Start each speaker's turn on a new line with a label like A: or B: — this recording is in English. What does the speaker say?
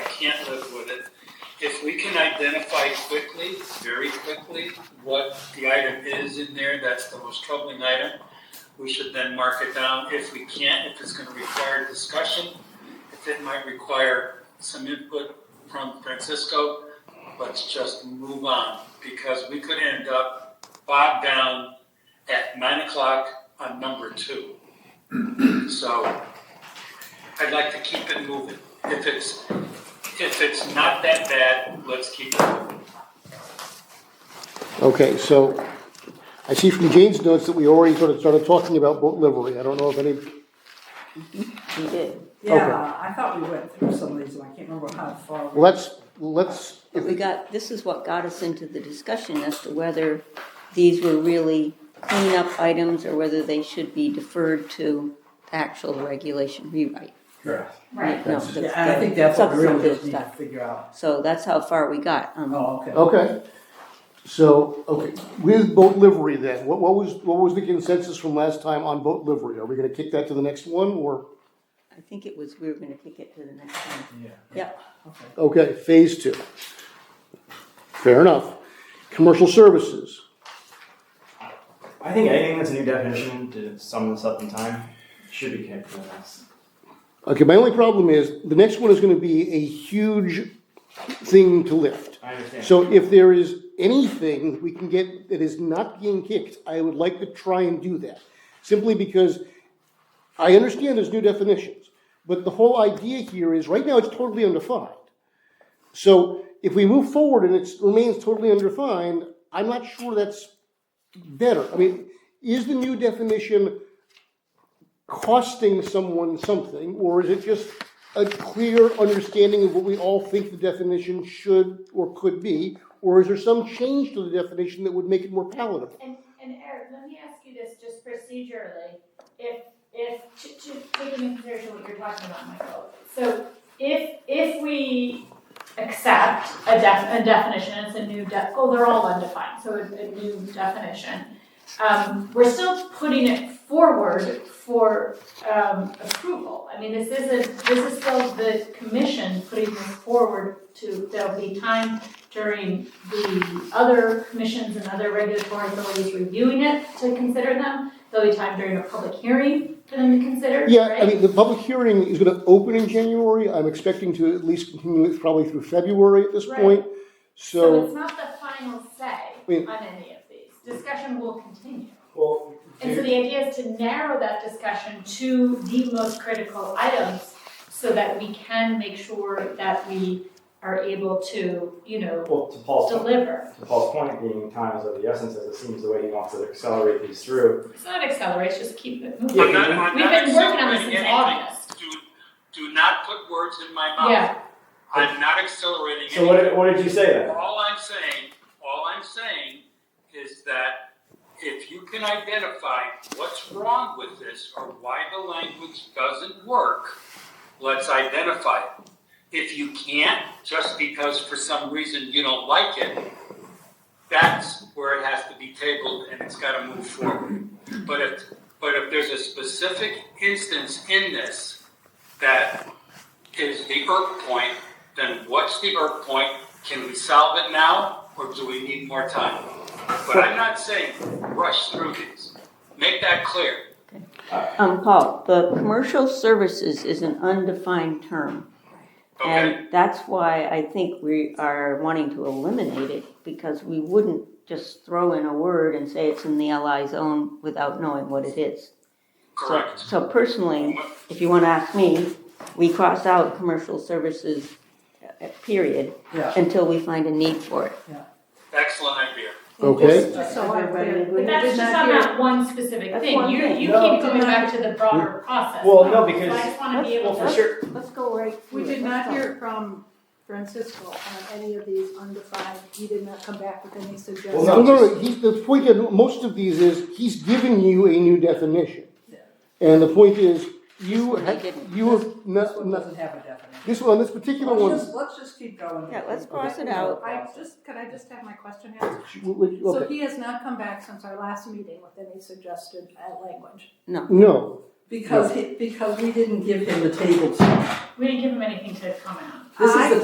A: can't live with it. If we can identify quickly, very quickly, what the item is in there, that's the most troubling item, we should then mark it down. If we can't, if it's gonna require discussion, if it might require some input from Francisco, let's just move on, because we could end up bogged down at nine o'clock on number two. So I'd like to keep it moving. If it's, if it's not that bad, let's keep it moving.
B: Okay, so I see from Jane's notes that we already sort of started talking about boat livery. I don't know if any,
C: We did,
B: Okay.
D: Yeah, I thought we went through some of these, and I can't remember how far. we-
B: let's, let's,
C: but we got, this is what got us into the discussion as to whether these were really cleanup items or whether they should be deferred to actual regulation rewrite.
E: Right.
C: No, the-
D: Yeah, and I think that's what we really
C: substantive
D: just need to
C: stuff.
D: figure out.
C: So that's how far we got. Um,
D: Oh, okay.
B: okay. So, okay, with boat livery then, what, what was, what was the consensus from last time on boat livery? Are we gonna kick that to the next one or,
C: I think it was, we were gonna kick it to the next one.
D: Yeah.
C: Yep,
B: okay, phase two. Fair enough. Commercial services,
E: I think anything that's a new definition to sum this up in time should be kept for the next.
B: Okay, my only problem is, the next one is gonna be a huge thing to lift.
E: I understand.
B: So if there is anything we can get that is not being kicked, I would like to try and do that. Simply because I understand there's new definitions, but the whole idea here is, right now, it's totally undefined. So if we move forward and it remains totally undefined, I'm not sure that's better. I mean, is the new definition costing someone something, or is it just a clear understanding of what we all think the definition should or could be? Or is there some change to the definition that would make it more palatable?
F: And, and Eric, let me ask you this just procedurally, if, if, to, to take into consideration what you're talking about, Michael. So if, if we accept a def, a definition, it's a new def, oh, they're all undefined, so a, a new definition. Um, we're still putting it forward for, um, approval. I mean, this isn't, this is still the commission putting this forward to, there'll be time during the other commissions and other regulatory authorities reviewing it to consider them. There'll be time during a public hearing for them to consider,
B: Yeah,
F: right?
B: I mean, the public hearing is gonna open in January. I'm expecting to at least continue it probably through February at this
F: Right.
B: point.
F: So
B: So,
F: it's not the final say
B: Wait.
F: on any of these. Discussion will continue.
E: Well,
F: And so the idea is to narrow that discussion to the most critical items so that we can make sure that we are able to, you know,
E: well, to Paul's point,
F: deliver.
E: to Paul's point being time is of the essence, as it seems the way he wants to accelerate these through.
F: It's not accelerate, just keep it moving.
E: Yeah,
A: I'm not- I'm
F: We've
A: not
F: been working on this
A: accelerating
F: since
A: anything.
F: August.
A: Do, do not put words in my mouth.
F: Yeah,
A: I'm not accelerating
E: So what
A: anything.
E: did, what did you say then?
A: All I'm saying, all I'm saying is that if you can identify what's wrong with this or why the language doesn't work, let's identify it. If you can't, just because for some reason you don't like it, that's where it has to be tabled and it's gotta move forward. But if, but if there's a specific instance in this that is the irk point, then what's the irk point? Can we solve it now, or do we need more time? But I'm not saying rush through these. Make that clear.
C: um, Paul, the commercial services is an undefined term.
A: Okay?
C: And that's why I think we are wanting to eliminate it, because we wouldn't just throw in a word and say it's in the LI zone without knowing what it is. So-
A: Correct.
C: So personally, if you want to ask me, we cross out commercial services, uh, period,
D: Yeah.
C: until we find a need for it.
A: Excellent idea.
B: okay,
D: Just
C: so I'm clear.
F: but that's just on that one specific
C: That's
F: thing.
C: one
F: You,
C: thing.
F: you
E: No,
F: keep going back to the broader process.
E: Well, no,
F: So I
E: because,
F: just wanna be able
E: well,
F: to.
E: for sure,
C: Let's go right
G: We
C: through it.
G: did not
C: Let's go.
G: hear from Francisco on any of these undefined, he did not come back with any suggestions.
B: no, no, no, he, the point of most of these is, he's giving you a new definition. And the point is, you,
C: This one
B: ha-
C: he didn't.
B: you have,
D: This
B: no,
D: one
B: no,
D: doesn't have a definition.
B: this one, this particular
G: Let's
B: one,
G: just, let's just keep going.
C: Yeah, let's
D: Okay.
C: cross it out.
G: I just, can I just have my question answered? So
B: okay,
G: he has not come back since our last meeting with any suggested uh, language.
B: no,
D: Because he, because we didn't give him the table to.
F: We didn't give him anything to comment on.
D: This is
G: I-
D: the